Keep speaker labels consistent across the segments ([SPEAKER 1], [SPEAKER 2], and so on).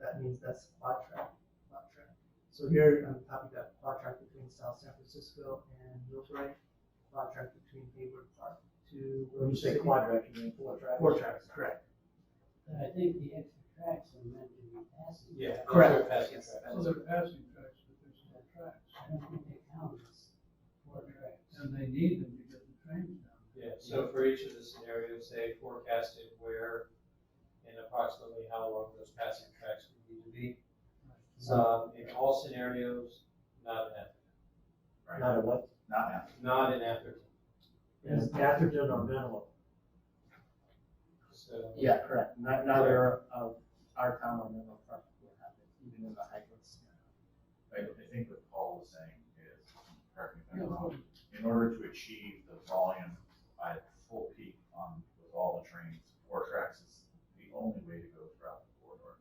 [SPEAKER 1] that means that's quad track, quad track. So here on the top, you got quad track between South San Francisco and Millbrae, quad track between Hayward Park to.
[SPEAKER 2] When you say
[SPEAKER 1] City.
[SPEAKER 2] quadratic, you mean four tracks?
[SPEAKER 1] Four tracks, correct.
[SPEAKER 3] But I think the extra tracks are meant to be passing.
[SPEAKER 2] Yeah.
[SPEAKER 1] Correct. Yes.
[SPEAKER 4] So they're passing tracks, but there's no tracks,
[SPEAKER 3] I don't think they count as four tracks.
[SPEAKER 4] and they need them to get the trains down.
[SPEAKER 5] Yeah, so for each of the scenarios, they forecasted where and approximately how long those passing tracks would need to be. Um, in all scenarios, not an afternoon,
[SPEAKER 2] Not a what?
[SPEAKER 6] Not now.
[SPEAKER 5] not an afternoon,
[SPEAKER 2] Is Atherton or Menlo?
[SPEAKER 5] so.
[SPEAKER 2] Yeah, correct. Not- Neither of our town or Menlo Park will have it, even in the hybrid scenario.
[SPEAKER 6] I, I think what Paul was saying is, correct me if I'm wrong, in order to achieve the volume at full peak on, with all the trains, four tracks is the only way to go throughout the corridor.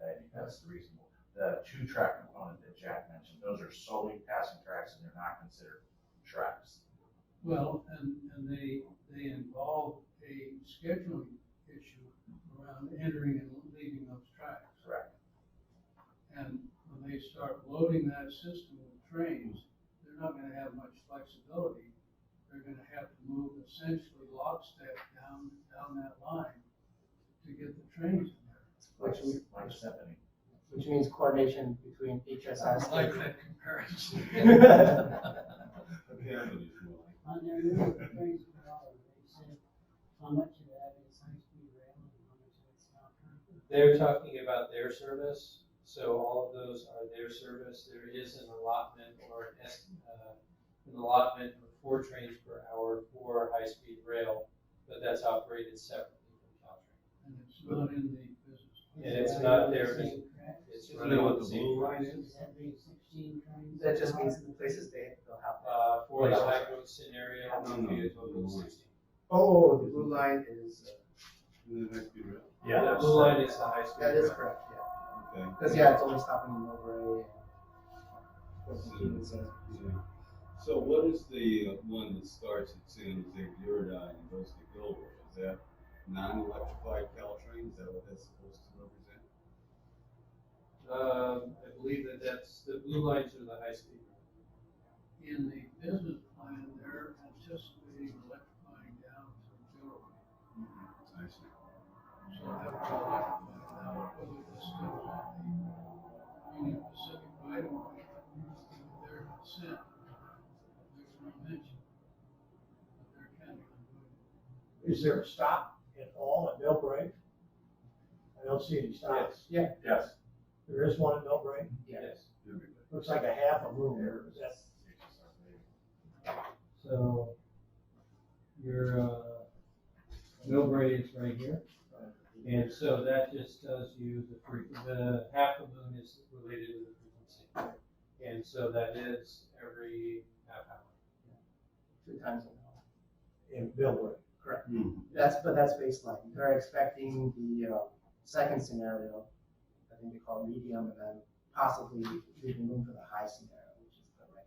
[SPEAKER 6] I think that's the reasonable. The two-track component that Jack mentioned, those are solely passing tracks and they're not considered tracks.
[SPEAKER 4] Well, and, and they, they involve a scheduling issue around entering and leaving those tracks.
[SPEAKER 6] Correct.
[SPEAKER 4] And when they start loading that system with trains, they're not gonna have much flexibility. They're gonna have to move essentially lockstep down, down that line to get the trains in there.
[SPEAKER 6] Like,
[SPEAKER 2] Which we-
[SPEAKER 6] like Stephanie.
[SPEAKER 2] Which means coordination between HSS.
[SPEAKER 4] that comparison.
[SPEAKER 3] On their new trains per hour, they said how much of that is high-speed rail and how much of it's not.
[SPEAKER 5] They're talking about their service, so all of those are their service. There is an allotment or an est, uh, an allotment of four trains per hour for high-speed rail, but that's operated separately from Caltrain.
[SPEAKER 4] And it's not in
[SPEAKER 5] Yeah, it's not
[SPEAKER 4] the business.
[SPEAKER 5] their
[SPEAKER 3] Is that
[SPEAKER 5] business.
[SPEAKER 3] correct?
[SPEAKER 5] It's
[SPEAKER 6] Isn't
[SPEAKER 5] running
[SPEAKER 6] that what
[SPEAKER 5] on the
[SPEAKER 6] the
[SPEAKER 5] same
[SPEAKER 6] blue line
[SPEAKER 5] track.
[SPEAKER 3] Does that mean sixteen trains?
[SPEAKER 1] That just means the places they, they'll have.
[SPEAKER 5] Uh, for the
[SPEAKER 2] Like-
[SPEAKER 5] high road scenario, it would be a total of sixteen.
[SPEAKER 1] Oh, the blue line is, uh,
[SPEAKER 2] Yeah,
[SPEAKER 5] The blue line is the high-speed
[SPEAKER 1] that is
[SPEAKER 5] rail.
[SPEAKER 1] correct, yeah.
[SPEAKER 7] Okay.
[SPEAKER 2] Because, yeah, it's only stopping in Millbrae and.
[SPEAKER 7] Yeah. So what is the uh, one that starts at San Jose Viridine and goes to Gilroy? Is that non-electrified Caltrain? Is that what that's supposed to represent?
[SPEAKER 5] Um, I believe that that's, the blue lines are the high-speed.
[SPEAKER 4] in the business plan, they're anticipating electrifying down to Gilroy.
[SPEAKER 7] I see.
[SPEAKER 4] So that would electrify now, whether this goes on the Union Pacific right of way, with their consent, they're gonna mention that they're counting on doing it.
[SPEAKER 8] Is there a stop at all at Millbrae? I don't see any stops.
[SPEAKER 6] Yes.
[SPEAKER 8] There is one at Millbrae.
[SPEAKER 2] Yeah.
[SPEAKER 5] Yes.
[SPEAKER 7] Everybody.
[SPEAKER 8] Looks like a half a moon there. Is that
[SPEAKER 3] So, your, uh, Millbrae is right here.
[SPEAKER 5] And so that just tells you the frequency, the half a moon is related to the frequency. And so that is every half hour.
[SPEAKER 2] Two times an hour.
[SPEAKER 8] in Millbrae?
[SPEAKER 2] That's, but that's baseline. They're expecting the, uh, second scenario, I think they call medium, and then possibly leaving room for the high scenario, which is the right.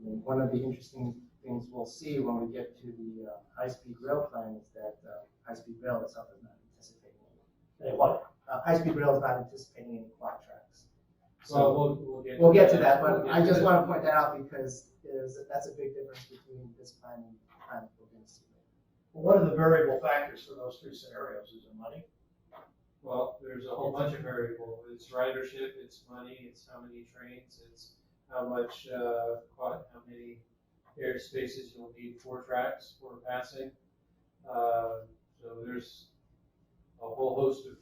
[SPEAKER 2] I mean, one of the interesting things we'll see when we get to the, uh, high-speed rail plan is that, uh, high-speed rail itself is not anticipating any.
[SPEAKER 8] They what?
[SPEAKER 2] Uh, high-speed rail is not anticipating any quad tracks.
[SPEAKER 5] So we'll, we'll get.
[SPEAKER 2] We'll get to that, but
[SPEAKER 5] We'll get
[SPEAKER 2] I just
[SPEAKER 5] that.
[SPEAKER 2] want to point that out because there's, that's a big difference between this plan and the plan we're going to see.
[SPEAKER 8] Well, One of the variable factors for those three scenarios is the money.
[SPEAKER 5] Well, there's a whole bunch of variable. It's ridership, it's money, it's how many trains, it's how much, uh, quad, how many air spaces you'll need for tracks for passing. Uh, so there's a whole host of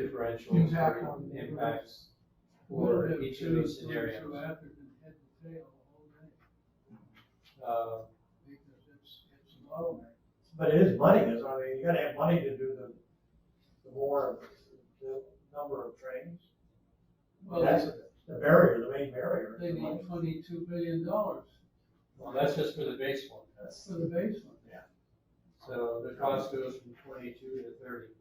[SPEAKER 5] differentials
[SPEAKER 4] Impact
[SPEAKER 5] or
[SPEAKER 4] on the
[SPEAKER 5] impacts for
[SPEAKER 4] Wouldn't it
[SPEAKER 5] each of those
[SPEAKER 4] be so
[SPEAKER 5] scenarios.
[SPEAKER 4] Atherton head to tail all day,
[SPEAKER 5] Uh,
[SPEAKER 4] because it's, it's a bottleneck.
[SPEAKER 8] But it is money, is, I mean, you gotta have money to do the, the more, the number of trains.
[SPEAKER 4] Well,
[SPEAKER 8] That's the barrier, the main barrier. is
[SPEAKER 4] they
[SPEAKER 8] the
[SPEAKER 4] need
[SPEAKER 8] money.
[SPEAKER 4] twenty-two billion dollars
[SPEAKER 5] well, that's just for the base one.
[SPEAKER 4] for the basement.
[SPEAKER 5] So the cost goes from twenty-two to thirty.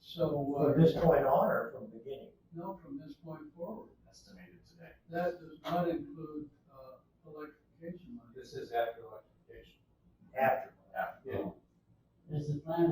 [SPEAKER 4] So,
[SPEAKER 8] From
[SPEAKER 4] uh,
[SPEAKER 8] this point on or from the beginning?
[SPEAKER 4] no, from this point forward.
[SPEAKER 6] Estimated today.
[SPEAKER 4] That does not include, uh, electrification money.
[SPEAKER 5] This is after electrification.
[SPEAKER 8] After.
[SPEAKER 6] Yeah.
[SPEAKER 3] Does the plan